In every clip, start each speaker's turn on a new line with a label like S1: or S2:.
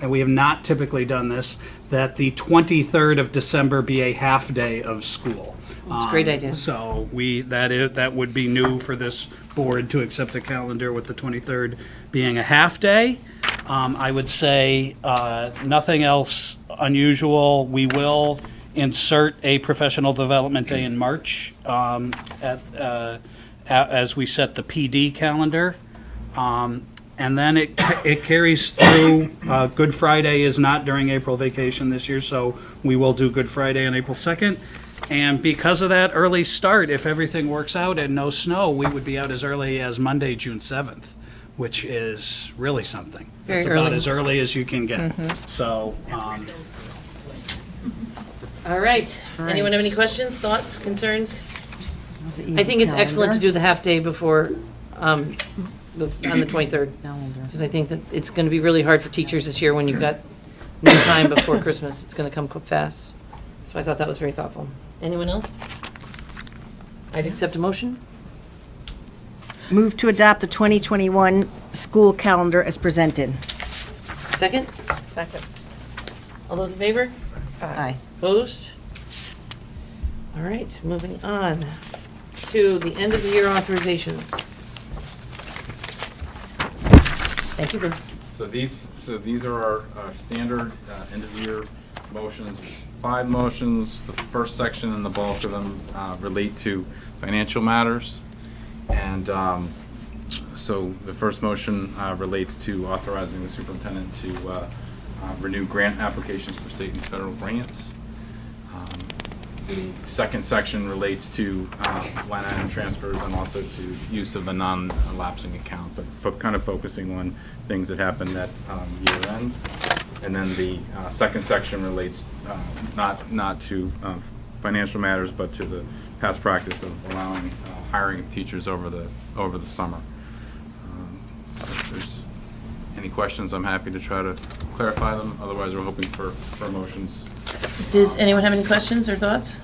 S1: and we have not typically done this, that the 23rd of December be a half day of school. Um,
S2: That's a great idea.
S1: So we, that is, that would be new for this board to accept a calendar with the 23rd being a half day. Um, I would say, uh, nothing else unusual. We will insert a professional development day in March, um, at, uh, a- as we set the PD calendar. um, And then it, ca- it carries through, uh, Good Friday is not during April vacation this year, so we will do Good Friday on April 2nd. And because of that early start, if everything works out and no snow, we would be out as early as Monday, June 7th, which is really something.
S2: Very
S1: It's about
S2: early. Mm-hmm.
S1: as early as you can get. So, um,
S2: All right. Anyone have any questions, thoughts, concerns? I think it's excellent to do the half-day before, um, the- on the 23rd, because I think that it's going to be really hard for teachers this year when you've got no time before Christmas. It's going to come co- fast. So I thought that was very thoughtful. Anyone else? I'd accept a motion.
S3: Move to adopt the 2021 school calendar as presented.
S2: Second?
S4: Second.
S2: All those in favor?
S3: Aye.
S2: Opposed? All right, moving on to the end of the year authorizations. Thank you, Bruce.
S5: So these, so these are our, our standard uh, end of year motions, five motions. The first section and the bulk of them uh, relate to financial matters. And um, so the first motion uh, relates to authorizing the superintendent to uh, uh, renew grant applications for state and federal grants. Um, The second section relates to uh, line item transfers and also to use of the non-lapsing account, but fo- kind of focusing on things that happened at um, year end. And then the uh, second section relates uh, not, not to uh, financial matters, but to the past practice of allowing uh, hiring of teachers over the, over the summer. Um, so If there's any questions, I'm happy to try to clarify them. Otherwise, we're hoping for, for motions
S2: Does anyone have any questions or thoughts?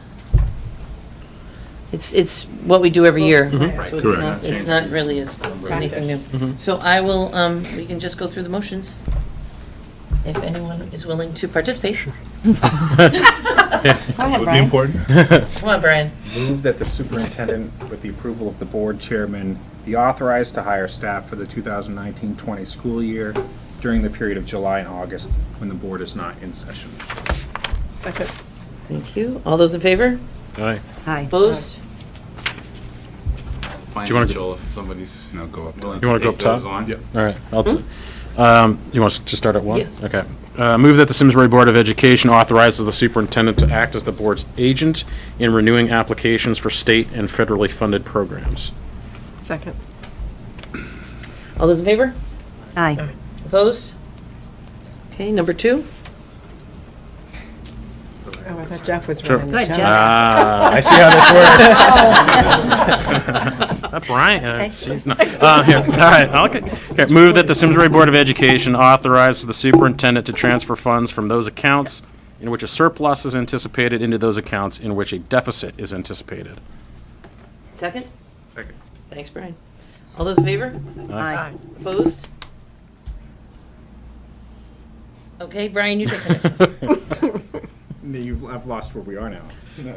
S2: It's, it's what we do every year. So it's not- It's not really as anything new. So I will, um, we can just go through the motions, if anyone is willing to participate.
S3: Go ahead, Brian.
S2: Come on, Brian.
S6: Move that the superintendent, with the approval of the board chairman, be authorized to hire staff for the 2019-20 school year during the period of July and August when the board is not in session.
S4: Second.
S2: Thank you. All those in favor?
S7: Aye.
S3: Aye.
S2: Opposed?
S7: you wanna
S5: financial
S7: go-
S5: if somebody's
S6: Now go up
S5: willing
S7: You
S5: to
S7: wanna go
S5: take
S7: up top?
S5: those on.
S7: All right. I'll s- um, You want us to start at one?
S2: Yeah.
S7: Okay. Uh, Move that the Simsbury Board of Education authorizes the superintendent to act as the board's agent in renewing applications for state and federally funded programs.
S4: Second.
S2: All those in favor?
S3: Aye.
S2: Opposed? Okay, number two?
S4: Oh, I thought Jeff was
S7: Sure.
S4: running
S3: Go
S4: the
S3: ahead,
S4: show.
S3: Jeff.
S7: Ah, I see how this works. That Brian, uh, she's not, uh, here, all right, I'll get- okay, move that the Simsbury Board of Education authorizes the superintendent to transfer funds from those accounts in which a surplus is anticipated into those accounts in which a deficit is anticipated.
S2: Second?
S6: Second.
S2: Thanks, Brian. All those in favor?
S3: Aye.
S2: Opposed? Okay, Brian, you take
S7: Uh,
S2: the next.
S6: You've, I've lost where we are now.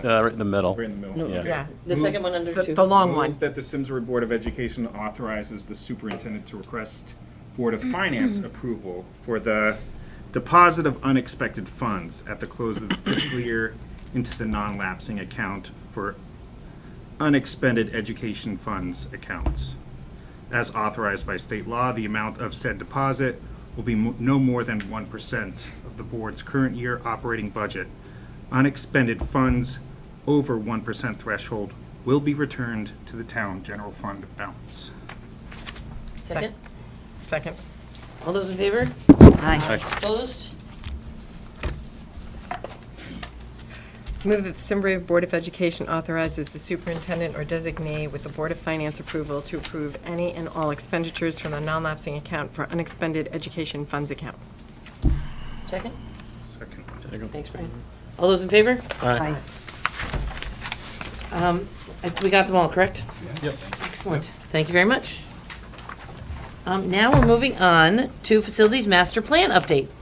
S7: Uh, right in the middle.
S6: We're in the middle.
S7: Yeah.
S4: Yeah,
S2: The second one under
S4: the,
S2: two.
S4: the long
S6: Move
S4: one.
S6: that the Simsbury Board of Education authorizes the superintendent to request Board of Finance approval for the deposit of unexpected funds at the close of the fiscal year into the non-lapsing account for unexpended education funds accounts. As authorized by state law, the amount of said deposit will be mo- no more than 1% of the board's current year operating budget. Unexpended funds over 1% threshold will be returned to the town general fund balance.
S2: Second?
S4: Second.
S2: All those in favor?
S3: Aye.
S2: Opposed?
S4: Move that the Simsbury Board of Education authorizes the superintendent or designee with the Board of Finance approval to approve any and all expenditures from the non-lapsing account for unexpended education funds account.
S2: Second?
S6: Second.
S2: Thanks, Brian. All those in favor?
S3: Aye.
S2: Um, I- We got them all, correct? Yep. Excellent. Thank you very much. Um, Now we're moving on to Facilities Master Plan Update.